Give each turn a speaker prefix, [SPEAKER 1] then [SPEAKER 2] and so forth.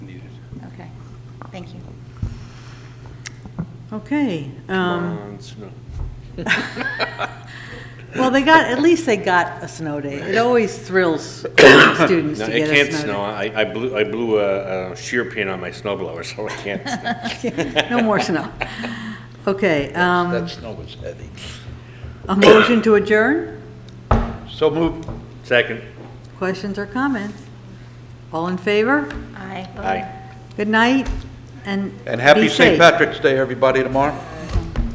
[SPEAKER 1] Thank you.
[SPEAKER 2] Okay, um,
[SPEAKER 3] Bonds, no.
[SPEAKER 2] well, they got, at least they got a snow day. It always thrills students
[SPEAKER 3] No,
[SPEAKER 2] to
[SPEAKER 3] it
[SPEAKER 2] get a
[SPEAKER 3] can't
[SPEAKER 2] snow
[SPEAKER 3] snow. I, I blew, I blew a, a shear pin on my snowblower, so it can't snow.
[SPEAKER 2] day. No more snow. Okay, um,
[SPEAKER 4] That snow was heavy.
[SPEAKER 2] a motion to adjourn?
[SPEAKER 4] So moved.
[SPEAKER 3] Second,
[SPEAKER 2] Questions or comments? All in favor?
[SPEAKER 1] Aye.
[SPEAKER 3] aye.
[SPEAKER 2] Good night, and
[SPEAKER 4] And happy
[SPEAKER 2] be
[SPEAKER 4] St.
[SPEAKER 2] safe.
[SPEAKER 4] Patrick's Day, everybody, tomorrow.